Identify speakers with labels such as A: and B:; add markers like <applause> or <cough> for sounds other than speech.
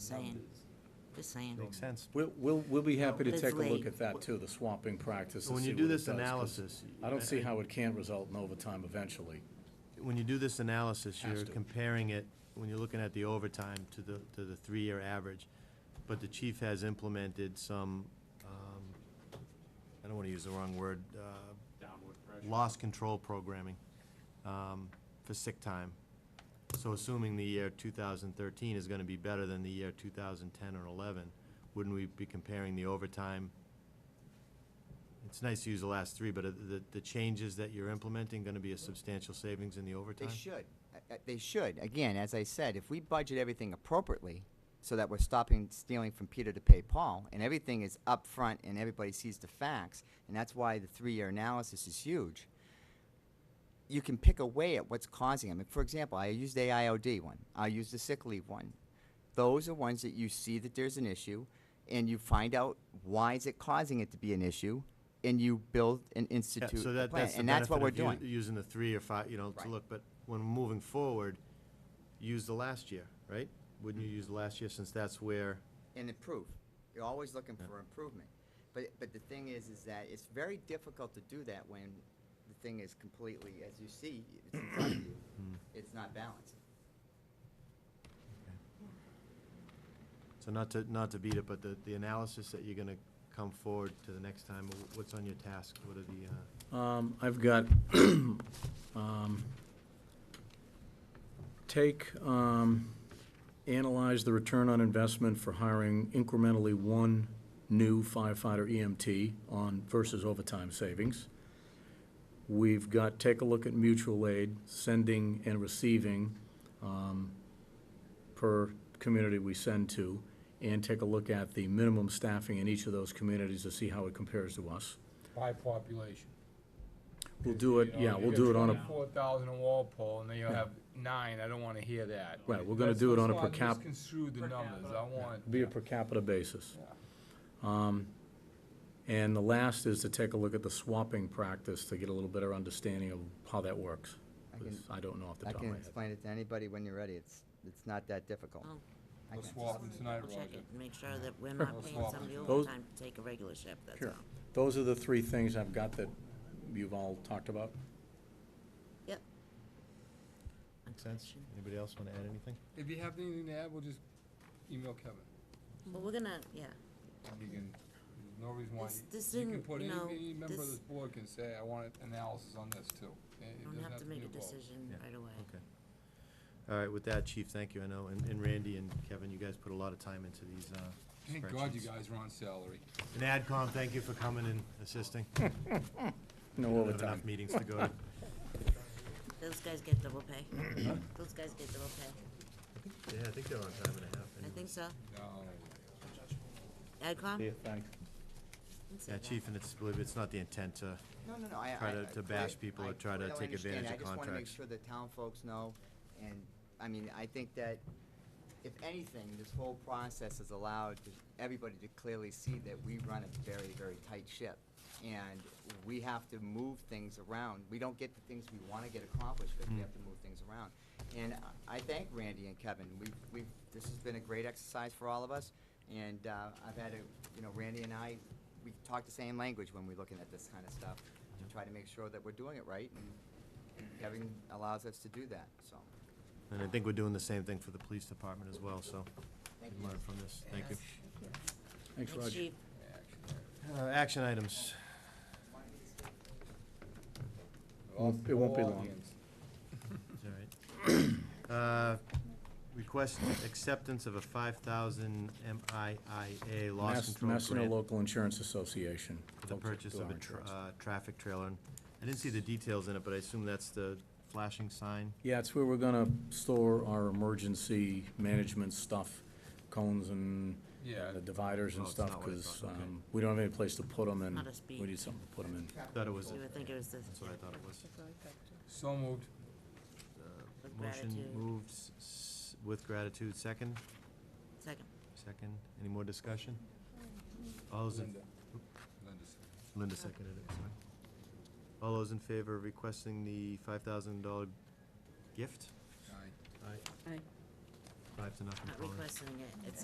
A: saying, just saying.
B: Makes sense.
C: We'll, we'll, we'll be happy to
A: That's
C: take a look
A: late.
C: at that too, the swamping practice.
B: So
C: and
B: when you
C: see
B: do
C: what it
B: this
C: does, 'cause
B: analysis.
C: I don't see
B: I-
C: how it can't result in overtime eventually.
B: When you do this analysis,
C: Has
B: you're
C: to.
B: comparing it, when you're looking at the overtime to the, to the three-year average. But the chief has implemented some, um, I don't want to use the wrong word, uh,
D: downward pressure.
B: loss control programming um, for sick time. So assuming the year 2013 is going to be better than the year 2010 or 11, wouldn't we be comparing the overtime? It's nice to use the last three, but are the, the changes that you're implementing going to be a substantial savings in the
E: They
B: overtime?
E: should. Uh, uh, They should. Again, as I said, if we budget everything appropriately, so that we're stopping stealing from Peter to pay Paul, and everything is upfront and everybody sees the facts, and that's why the three-year analysis is huge. You can pick away at what's causing them. For example, I used the AIOD one. I used the sick leave one. Those are ones that you see that there's an issue, and you find out why is it causing it to be an issue, and you build and
B: Yeah,
E: institute
B: so
E: a
B: that,
E: plan.
B: that's the
E: And that's what we're
B: benefit
E: doing.
B: of u- using the three or five, you know, to
E: Right.
B: look, but when moving forward, use the last year, right? Wouldn't you
E: Mm-hmm.
B: use the last year since that's where?
E: and improve. You're always looking for improvement. But, but the thing is, is that it's very difficult to do that when the thing is completely, as you see, it's in front of you,
B: Hmm.
E: it's not balanced.
B: So not to, not to beat it, but the, the analysis that you're gonna come forward to the next time, wh- what's on your task? What are the, uh,
C: Um, I've got, <clears throat> um, take, um, analyze the return on investment for hiring incrementally one new firefighter EMT on versus overtime savings. We've got, take a look at mutual aid, sending and receiving, um, per community we send to, and take a look at the minimum staffing in each of those communities to see how it compares to us.
D: By population.
C: We'll do it, yeah, we'll do it on a,
D: Four thousand in Walpole, and then you'll have nine, I don't wanna hear that.
C: Right, we're gonna
D: Let's-
C: do it
D: let's
C: on a
D: not
C: per cap-
D: Misconstrue the numbers, I want.
C: be a per capita basis. Um, And the last is to take a look at the swapping practice to get a little better understanding of how that works.
E: I
C: 'cause
E: can-
C: I don't know off the
E: I
C: top of my
E: can
C: head.
E: explain it to anybody when you're ready, it's, it's not that difficult.
A: Well,
E: I
D: Let's
E: can.
D: walk it tonight,
A: I'll check
D: Roger.
A: it and make sure that we're not paying
D: swap
A: somebody
D: it.
C: Those-
A: overtime to take a regular shift, that's all.
C: Sure. Those are the three things I've got that you've all talked about.
A: Yep.
B: sense? Anybody else wanna add anything?
F: If you have anything to add, we'll just email Kevin.
A: Well, we're gonna, yeah,
F: You can, there's no reason why,
A: This-
F: you-
A: this
F: you can
A: didn't,
F: put,
A: you
F: any,
A: know,
F: any member of
A: this-
F: this board can say, I want analysis on this too. It- it
A: don't
F: doesn't
A: have to
F: be
A: make a
F: vote.
A: decision
B: Yeah.
A: right away.
B: Okay. All right, with that, chief, thank you, I know, and, and Randy and Kevin, you guys put a lot of time into these, uh,
F: Thank God you
B: spreadsheets.
F: guys are on salary.
B: And AdCom, thank you for coming and assisting.
C: No
B: We have
C: overtime.
B: Enough meetings to go to.
A: Those guys get double pay.
C: Uh-huh.
A: Those guys get double pay.
B: Yeah, I think they're on time and a half.
A: I think so.
F: No.
A: AdCom?
C: Yeah, thanks.
A: Didn't say
B: Yeah,
A: that.
B: chief, and it's, believe it, it's not the intent uh, to,
E: No, no, no, I, I.
B: Try to-
E: I
B: to bash
E: clear-
B: people
E: I
B: or try to
E: clearly
B: take
E: understand.
B: advantage of
E: I just wanna make
B: contracts.
E: sure the town folks know, and, I mean, I think that if anything, this whole process has allowed to- everybody to clearly see that we run a very, very tight ship. And we have to move things around. We don't get the things we wanna get accomplished, but we have to move things around. And I- I thank Randy and Kevin. We've, we've, this has been a great exercise for all of us. And, uh, I've had a, you know, Randy and I, we talk the same language when we're looking at this kind of stuff to try to make sure that we're doing it right. And Kevin allows us to do that, so.
B: and I think we're doing the same thing for the police department as well, so.
E: Thank
B: can
E: you.
B: Learn from this, thank you.
C: Thanks,
A: Thanks,
C: Roger.
A: chief.
B: Uh, action items.
C: Won't- it won't be
F: All
C: long.
F: hands.
B: All right. <coughs> Uh, Request acceptance of a five thousand MIIA loss
C: Mass-
B: control
C: Massena
B: grant
C: Local Insurance Association.
B: for the
C: Folks at
B: purchase of a
C: Doran
B: tra-
C: Trust.
B: uh, traffic trailer. And I didn't see the details in it, but I assume that's the flashing sign.
C: Yeah, it's where we're gonna store our emergency management stuff, cones and
F: Yeah.
C: the dividers and
B: Oh, it's
C: stuff,
B: not what I
C: because,
B: thought, okay.
C: um, we don't have any place to put them and
A: Not a speed.
C: we need something to put them in.
B: Thought it was,
A: You would think it was this,
B: that's what I thought it was. Uh,
F: So moved.
A: With
B: Motion
A: gratitude.
B: moved s- s- with gratitude, second,
A: second.
B: second. Any more discussion? All those in,
F: Linda. Linda said.
B: Linda seconded it, sorry. All those in favor of requesting the five thousand dollar gift?
F: Aye.
B: Aye. Five to nothing.
A: Not
B: Colin.
A: requesting it, it's